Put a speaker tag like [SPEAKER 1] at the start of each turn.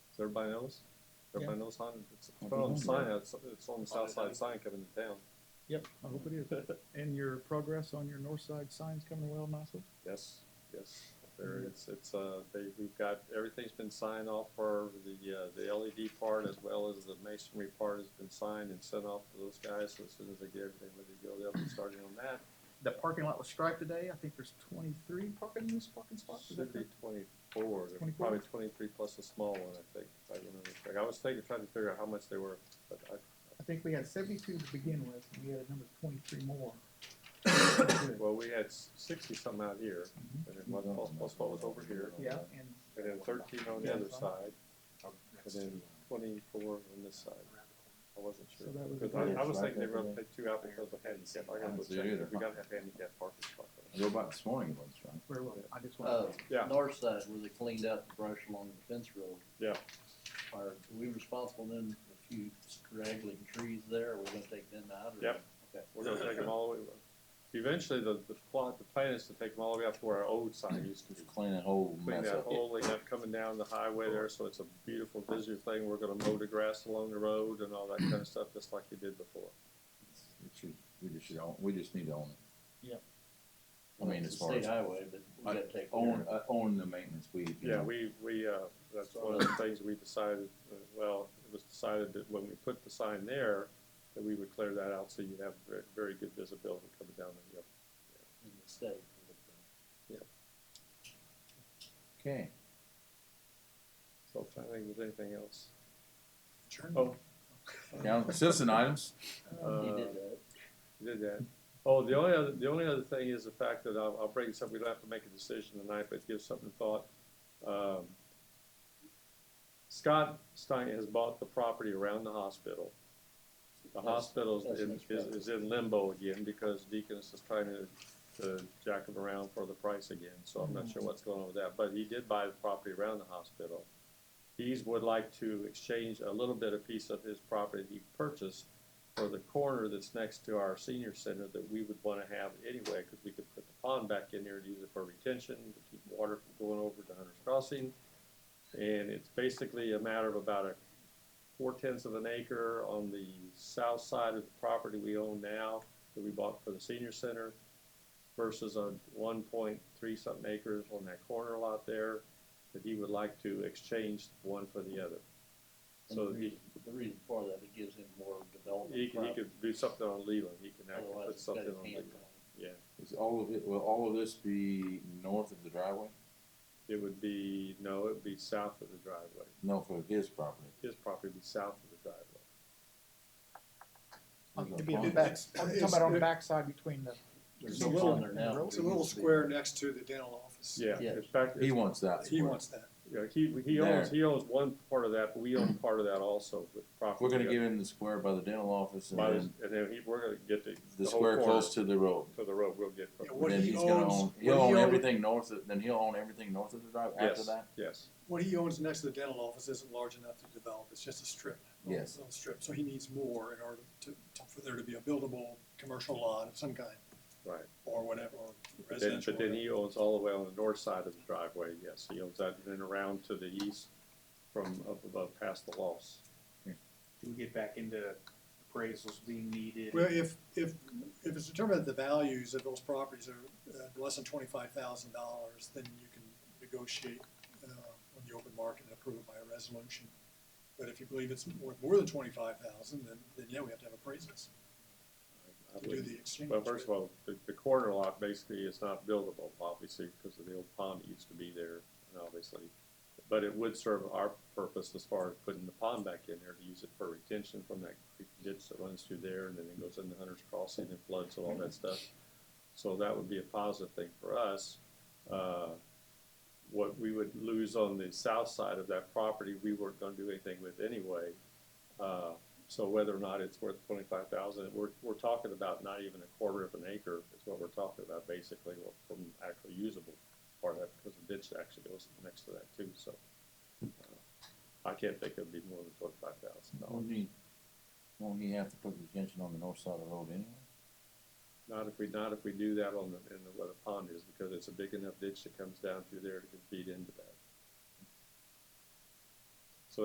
[SPEAKER 1] Everybody knows? Everybody knows Honda? It's it's put on the sign, it's, it's on the south side sign coming to town.
[SPEAKER 2] Yep, I hope it is. And your progress on your north side sign's coming well nicely?
[SPEAKER 1] Yes, yes, there, it's, it's, uh, they, we've got, everything's been signed off for the, uh, the LED part as well as the masonry part has been signed and sent off to those guys, so as soon as they get everything ready to go, they'll be starting on that.
[SPEAKER 2] The parking lot was striped today. I think there's twenty-three parking, in this parking spots. Is
[SPEAKER 1] Should
[SPEAKER 2] that
[SPEAKER 1] be
[SPEAKER 2] correct?
[SPEAKER 1] twenty-four, They're
[SPEAKER 2] 24?
[SPEAKER 1] probably twenty-three plus a small one, I think, if I remember correctly. I was thinking, trying to figure out how much they were, but I,
[SPEAKER 2] I think we had seventy-two to begin with, and we had another twenty-three more.
[SPEAKER 1] Well, we had sixty something out here,
[SPEAKER 2] Mhm.
[SPEAKER 1] and then one plus, plus what was over here,
[SPEAKER 2] Yeah, and
[SPEAKER 1] and then thirteen on the other side,
[SPEAKER 3] Oh,
[SPEAKER 1] and then twenty-four on this side. I wasn't sure.
[SPEAKER 2] So that was-
[SPEAKER 1] 'Cause I, I was thinking they were gonna take two out because of handicap, I gotta go
[SPEAKER 3] I see
[SPEAKER 1] check,
[SPEAKER 3] either.
[SPEAKER 1] we gotta have handicap parking spots.
[SPEAKER 3] I drove by this morning, it was right.
[SPEAKER 2] where was it? I just
[SPEAKER 4] Uh,
[SPEAKER 2] want,
[SPEAKER 1] Yeah.
[SPEAKER 4] north side where they cleaned out the brush along the fence road.
[SPEAKER 1] Yeah.
[SPEAKER 4] Are we responsible then for a few straggling trees there? Are we gonna take them out or?
[SPEAKER 1] Yep.
[SPEAKER 4] Okay.
[SPEAKER 1] We're gonna take them all the way, eventually, the, the plot, the plan is to take them all the way up to where our old sign used to be.
[SPEAKER 3] Just clean that whole
[SPEAKER 1] Clean
[SPEAKER 3] mess
[SPEAKER 1] that
[SPEAKER 3] up.
[SPEAKER 1] whole thing up coming down the highway there, so it's a beautiful visual thing, we're gonna mow the grass along the road and all that kinda stuff, just like you did before.
[SPEAKER 3] It should- We just should own, we just need to own it. I mean,
[SPEAKER 4] It's
[SPEAKER 3] as
[SPEAKER 4] a
[SPEAKER 3] far as-
[SPEAKER 4] State highway, but we gotta take.
[SPEAKER 3] Own,
[SPEAKER 4] care
[SPEAKER 3] uh, own the maintenance we. you
[SPEAKER 1] Yeah,
[SPEAKER 3] know.
[SPEAKER 1] we, we, uh, that's one of the things we decided, uh, well, it was decided that when we put the sign there, that we would clear that out so you'd have very, very good visibility coming down the hill.
[SPEAKER 4] in the state.
[SPEAKER 3] Okay,
[SPEAKER 1] So if I think there's anything else.
[SPEAKER 2] oh,
[SPEAKER 3] now, citizen items,
[SPEAKER 1] Uh,
[SPEAKER 4] Oh, You did that.
[SPEAKER 1] You did that. Oh, the only other, the only other thing is the fact that I'll, I'll bring this up, we don't have to make a decision tonight, but give something thought. Um, Scott Stein has bought the property around the hospital. The
[SPEAKER 4] That's-
[SPEAKER 1] hospital
[SPEAKER 4] that's
[SPEAKER 1] is,
[SPEAKER 4] much
[SPEAKER 1] is,
[SPEAKER 4] better.
[SPEAKER 1] is in limbo again because Deaconess is trying to, to jack him around for the price again, so I'm not sure what's going on with that, but he did buy the property around the hospital. He's would like to exchange a little bit of piece of his property he purchased for the corner that's next to our senior center that we would wanna have anyway, cause we could put the pond back in there and use it for retention, to keep water from going over to Hunter's Crossing. And it's basically a matter of about a four tenths of an acre on the south side of the property we own now that we bought for the senior center versus a one point three something acres on that corner lot there that he would like to exchange one for the other.
[SPEAKER 4] And
[SPEAKER 1] So
[SPEAKER 4] the
[SPEAKER 1] that he,
[SPEAKER 4] reason- The reason for that, it gives him more development.
[SPEAKER 1] he could, he
[SPEAKER 4] property.
[SPEAKER 1] could do something on Leland, he can actually
[SPEAKER 4] Otherwise,
[SPEAKER 1] put
[SPEAKER 4] it's got
[SPEAKER 1] something
[SPEAKER 4] his
[SPEAKER 1] on
[SPEAKER 4] hand
[SPEAKER 1] Leland,
[SPEAKER 4] on it.
[SPEAKER 1] yeah.
[SPEAKER 3] is all of it, will all of this be north of the driveway?
[SPEAKER 1] It would be, no, it would be south of the driveway,
[SPEAKER 3] No, for his property.
[SPEAKER 1] his property would be south of the driveway.
[SPEAKER 5] Oh,
[SPEAKER 2] it'd be on the back, I'm talking about on the backside between the.
[SPEAKER 5] There's
[SPEAKER 4] It's
[SPEAKER 5] a little-
[SPEAKER 4] on there now.
[SPEAKER 5] It's a little square next to the dental office.
[SPEAKER 1] Yeah,
[SPEAKER 4] Yeah.
[SPEAKER 1] in fact,
[SPEAKER 3] He wants that.
[SPEAKER 5] He wants that.
[SPEAKER 1] Yeah, he, he owns, he owns one part of that, but we own part of that also with property.
[SPEAKER 3] We're gonna give him the square by the dental office and
[SPEAKER 1] By this-
[SPEAKER 3] then
[SPEAKER 1] And then he, we're gonna get the,
[SPEAKER 3] the
[SPEAKER 1] the whole
[SPEAKER 3] square
[SPEAKER 1] corner
[SPEAKER 3] close
[SPEAKER 1] to
[SPEAKER 3] to the road.
[SPEAKER 1] the road, we'll get.
[SPEAKER 5] Yeah,
[SPEAKER 3] And
[SPEAKER 5] What
[SPEAKER 3] Then
[SPEAKER 5] he
[SPEAKER 3] he's gonna
[SPEAKER 5] owns-
[SPEAKER 3] own,
[SPEAKER 5] what
[SPEAKER 3] he'll
[SPEAKER 5] he
[SPEAKER 3] own
[SPEAKER 5] owns-
[SPEAKER 3] everything north of, then he'll own everything north of the driveway after
[SPEAKER 1] Yes,
[SPEAKER 3] that?
[SPEAKER 1] yes,
[SPEAKER 5] What he owns next to the dental office isn't large enough to develop, it's just a strip. a little-
[SPEAKER 3] Yes.
[SPEAKER 5] Little strip, so he needs more in order to, to, for there to be a buildable commercial lot of some kind,
[SPEAKER 1] right.
[SPEAKER 5] or whatever, or
[SPEAKER 1] But then,
[SPEAKER 5] residential.
[SPEAKER 1] but then he owns all the way on the north side of the driveway, yes, he owns that, and then around to the east from up above past the loss.
[SPEAKER 6] Do we get back into appraisals being needed?
[SPEAKER 5] Well, if, if, if it's determined that the values of those properties are uh, less than twenty-five thousand dollars, then you can negotiate uh, on the open market and approve it by a resolution. But if you believe it's worth more than twenty-five thousand, then, then yeah, we have to have appraisals
[SPEAKER 1] I
[SPEAKER 5] to do
[SPEAKER 1] wouldn't-
[SPEAKER 5] the exchange.
[SPEAKER 1] Well, first of all, the, the corner lot basically is not buildable, obviously, because of the old pond that used to be there, and obviously. But it would serve our purpose as far as putting the pond back in there to use it for retention from that creek ditch that runs through there, and then it goes into Hunter's Crossing and floods and all that stuff. So that would be a positive thing for us. Uh, What we would lose on the south side of that property, we weren't gonna do anything with anyway. Uh, So whether or not it's worth twenty-five thousand, we're, we're talking about not even a quarter of an acre is what we're talking about basically or from actually usable part of that because the ditch actually goes next to that too, so. uh, I can't think it'd be more than twenty-five thousand dollars,
[SPEAKER 3] Won't he, won't he have to put the extension on the north side of the road anyway?
[SPEAKER 1] not if we, not if we do that on the, in the, where the pond is because it's a big enough ditch that comes down through there to feed into that.